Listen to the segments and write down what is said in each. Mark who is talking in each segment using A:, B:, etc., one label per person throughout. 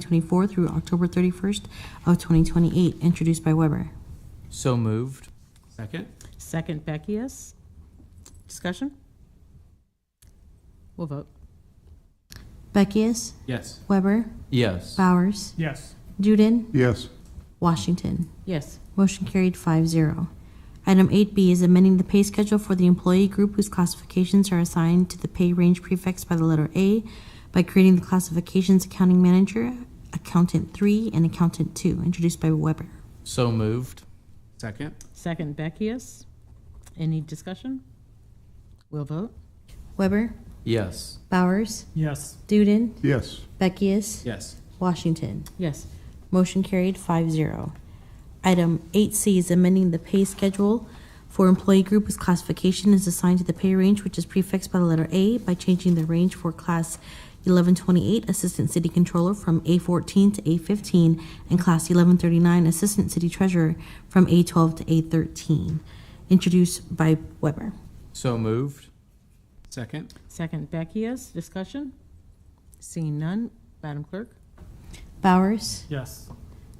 A: 2024 through October 31st of 2028, introduced by Weber.
B: So moved.
C: Second?
D: Second, Beckius. Discussion? We'll vote.
A: Beckius,
C: Yes.
A: Weber,
B: Yes.
A: Bowers,
E: Yes.
A: Duden,
E: Yes.
A: Washington.
D: Yes.
A: Motion carried 5-0. Item eight B is amending the pay schedule for the employee group whose classifications are assigned to the pay range prefix by the letter A by creating the classifications accounting manager, accountant three, and accountant two, introduced by Weber.
B: So moved.
C: Second?
D: Second, Beckius. Any discussion? We'll vote.
A: Weber,
B: Yes.
A: Bowers,
E: Yes.
A: Duden,
E: Yes.
A: Beckius,
C: Yes.
A: Washington.
D: Yes.
A: Motion carried 5-0. Item eight C is amending the pay schedule for employee group whose classification is assigned to the pay range which is prefixed by the letter A by changing the range for class eleven twenty-eight Assistant City Controller from A fourteen to A fifteen and class eleven thirty-nine Assistant City Treasurer from A twelve to A thirteen, introduced by Weber.
B: So moved.
C: Second?
D: Second, Beckius. Discussion? Seeing none, Madam Clerk?
A: Bowers,
E: Yes.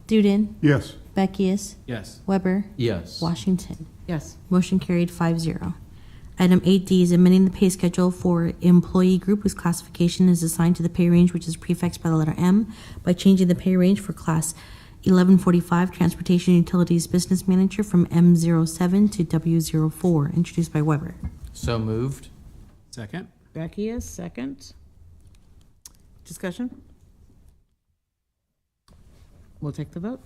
A: Duden,
E: Yes.
A: Beckius,
C: Yes.
A: Weber,
B: Yes.
A: Washington.
D: Yes.
A: Motion carried 5-0. Item eight D is amending the pay schedule for employee group whose classification is assigned to the pay range which is prefixed by the letter M by changing the pay range for class eleven forty-five Transportation Utilities Business Manager from M 7 to W 4 introduced by Weber.
B: So moved.
C: Second?
D: Beckius, second. Discussion? We'll take the vote.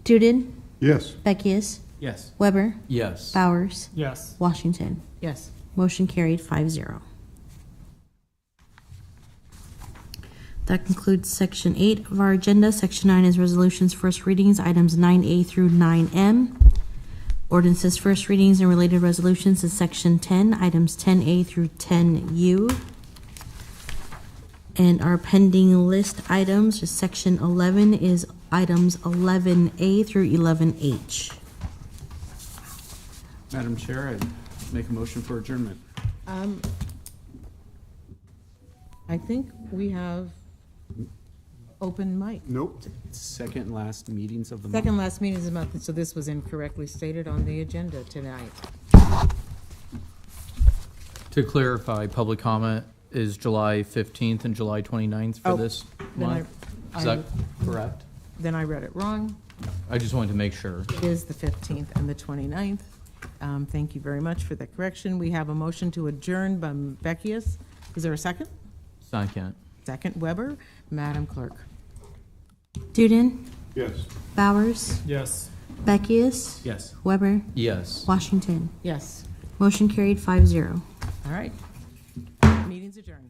A: Duden,
E: Yes.
A: Beckius,
C: Yes.
A: Weber,
B: Yes.
A: Bowers,
E: Yes.
A: Washington.
D: Yes.
A: Motion carried 5-0. That concludes section eight of our agenda. Section nine is resolutions, first readings, items nine A through nine M. Ordinances, first readings and related resolutions is section ten, items ten A through ten U. And our pending list items, is section eleven is items eleven A through eleven H.
C: Madam Chair, I make a motion for adjournment.
D: Um, I think we have open mic.
E: Nope.
C: Second and last meetings of the month.
D: Second last meeting is a month, so this was incorrectly stated on the agenda tonight.
B: To clarify, public comment is July 15th and July 29th for
D: Oh,
B: this
D: Then I-
B: month? Is
D: I,
B: that correct?
D: then I read it wrong.
B: I just wanted to make sure.
D: It is the 15th and the 29th. Um, Thank you very much for that correction. We have a motion to adjourn by Beckius. Is there a second?
B: Second.
D: Second Weber. Madam Clerk.
A: Duden,
E: Yes.
A: Bowers,
E: Yes.
A: Beckius,
C: Yes.
A: Weber,
B: Yes.
A: Washington.
D: Yes.
A: Motion carried 5-0.
D: All right. Meeting's adjourned.